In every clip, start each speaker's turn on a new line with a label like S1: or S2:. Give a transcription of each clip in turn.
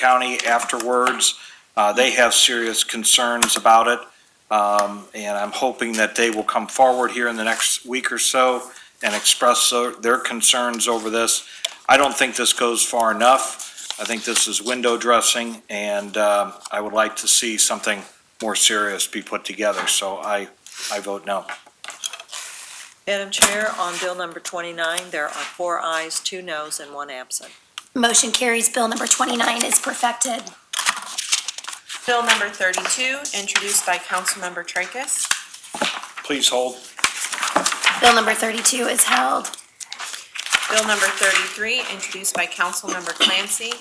S1: county afterwards. Uh, They have serious concerns about it, Um, and I'm hoping that they will come forward here in the next week or so and express their- their concerns over this. I don't think this goes far enough. I think this is window dressing, and um, I would like to see something more serious be put together, so I, I vote no.
S2: Madam Chair, on bill number 29, there are four ayes, two noes, and one absent.
S3: Motion carries. Bill number 29 is perfected.
S4: Bill number thirty-two, introduced by Councilmember Tracus.
S1: Please hold.
S3: Bill number 32 is held.
S4: Bill number thirty-three, introduced by Councilmember Clancy.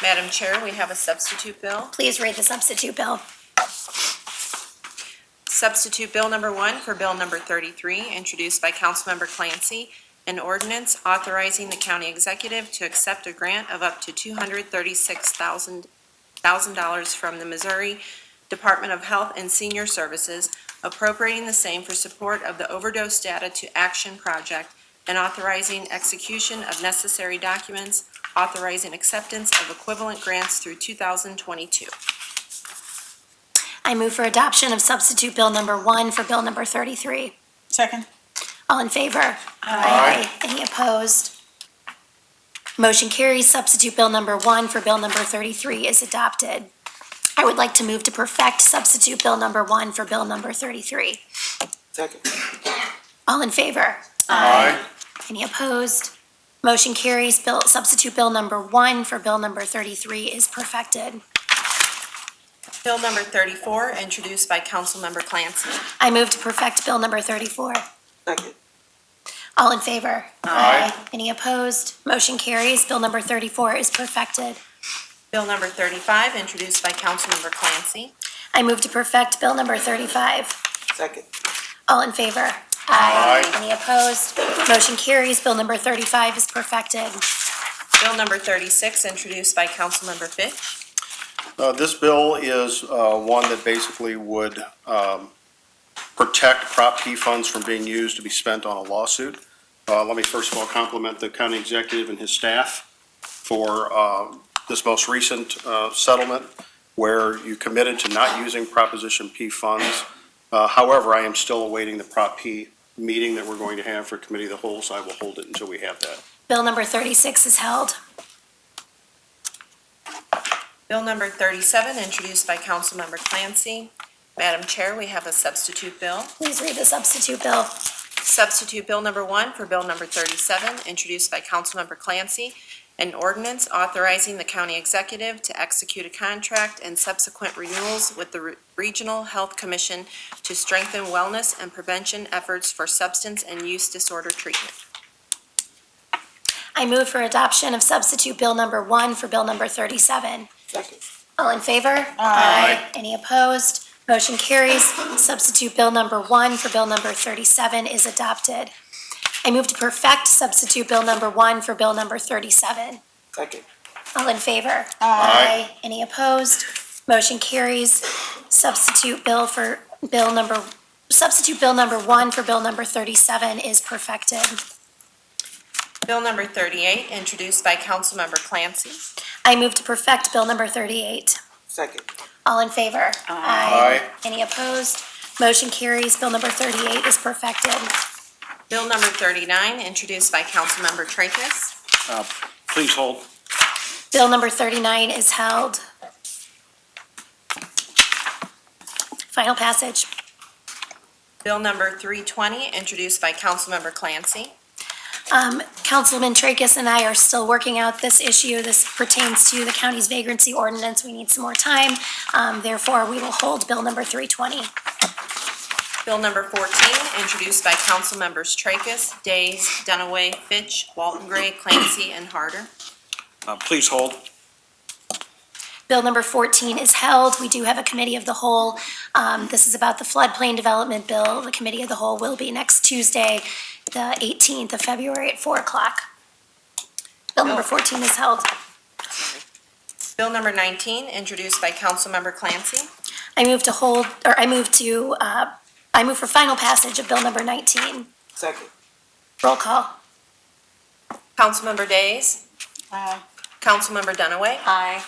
S4: Madam Chair, we have a substitute bill.
S3: Please read the substitute bill.
S4: Substitute Bill number one for Bill number thirty-three, introduced by Councilmember Clancy, an ordinance authorizing the county executive to accept a grant of up to two hundred thirty-six thousand, thousand dollars from the Missouri Department of Health and Senior Services, appropriating the same for support of the overdose data to action project, and authorizing execution of necessary documents, authorizing acceptance of equivalent grants through two thousand twenty-two.
S3: I move for adoption of substitute bill number 1 for bill number 33.
S5: Second.
S3: All in favor? Aye. Any opposed? Motion carries. Substitute bill number 1 for bill number 33 is adopted. I would like to move to perfect substitute bill number 1 for bill number 33.
S5: Second.
S3: All in favor? Any opposed? Motion carries. Bill, substitute bill number 1 for bill number 33 is perfected.
S4: Bill number thirty-four, introduced by Councilmember Clancy.
S3: I move to perfect Bill number 34.
S5: Second.
S3: All in favor? Aye. Any opposed? Motion carries. Bill number 34 is perfected.
S4: Bill number thirty-five, introduced by Councilmember Clancy.
S3: I move to perfect Bill number 35.
S5: Second.
S3: All in favor? Aye. Any opposed? Motion carries. Bill number 35 is perfected.
S4: Bill number thirty-six, introduced by Councilmember Fitch.
S6: Uh, This bill is uh, one that basically would um, protect Prop P funds from being used to be spent on a lawsuit. Uh, Let me first of all compliment the county executive and his staff for uh, this most recent uh, settlement where you committed to not using Proposition P funds. Uh, However, I am still awaiting the Prop P meeting that we're going to have for Committee of the Whole, so I will hold it until we have that.
S3: Bill number 36 is held.
S4: Bill number thirty-seven, introduced by Councilmember Clancy. Madam Chair, we have a substitute bill.
S3: Please read the substitute bill.
S4: Substitute Bill number one for Bill number thirty-seven, introduced by Councilmember Clancy. An ordinance authorizing the county executive to execute a contract and subsequent renewals with the Re- Regional Health Commission to strengthen wellness and prevention efforts for substance and use disorder treatment.
S3: I move for adoption of substitute Bill number 1 for Bill number 37.
S5: Second.
S3: All in favor? Aye. Any opposed? Motion carries. Substitute Bill number 1 for Bill number 37 is adopted. I move to perfect substitute Bill number 1 for Bill number 37.
S5: Second.
S3: All in favor? Aye. Any opposed? Motion carries. Substitute Bill for Bill number, substitute Bill number 1 for Bill number 37 is perfected.
S4: Bill number thirty-eight, introduced by Councilmember Clancy.
S3: I move to perfect Bill number 38.
S5: Second.
S3: All in favor?
S6: Aye.
S3: Any opposed? Motion carries. Bill number 38 is perfected.
S4: Bill number thirty-nine, introduced by Councilmember Tracus.
S1: Uh, Please hold.
S3: Bill number 39 is held. Final passage.
S4: Bill number three twenty, introduced by Councilmember Clancy.
S3: Um, Councilman Tracus and I are still working out this issue. This pertains to the county's vagrancy ordinance. We need some more time. Um, Therefore, we will hold Bill number 320.
S4: Bill number 14, introduced by Councilmembers Tracus, Days, Dunaway, Fitch, Walton Gray, Clancy, and Harder.
S1: Uh, Please hold.
S3: Bill number 14 is held. We do have a committee of the whole. Um, This is about the floodplain development bill. The committee of the whole will be next Tuesday, the 18th of February at 4 o'clock. Bill number 14 is held.
S4: Bill number 19, introduced by Councilmember Clancy.
S3: I move to hold, or I move to, uh, I move for final passage of bill number 19.
S5: Second.
S3: Roll call.
S4: Councilmember Days.
S5: Aye.
S4: Councilmember Dunaway.
S2: Aye.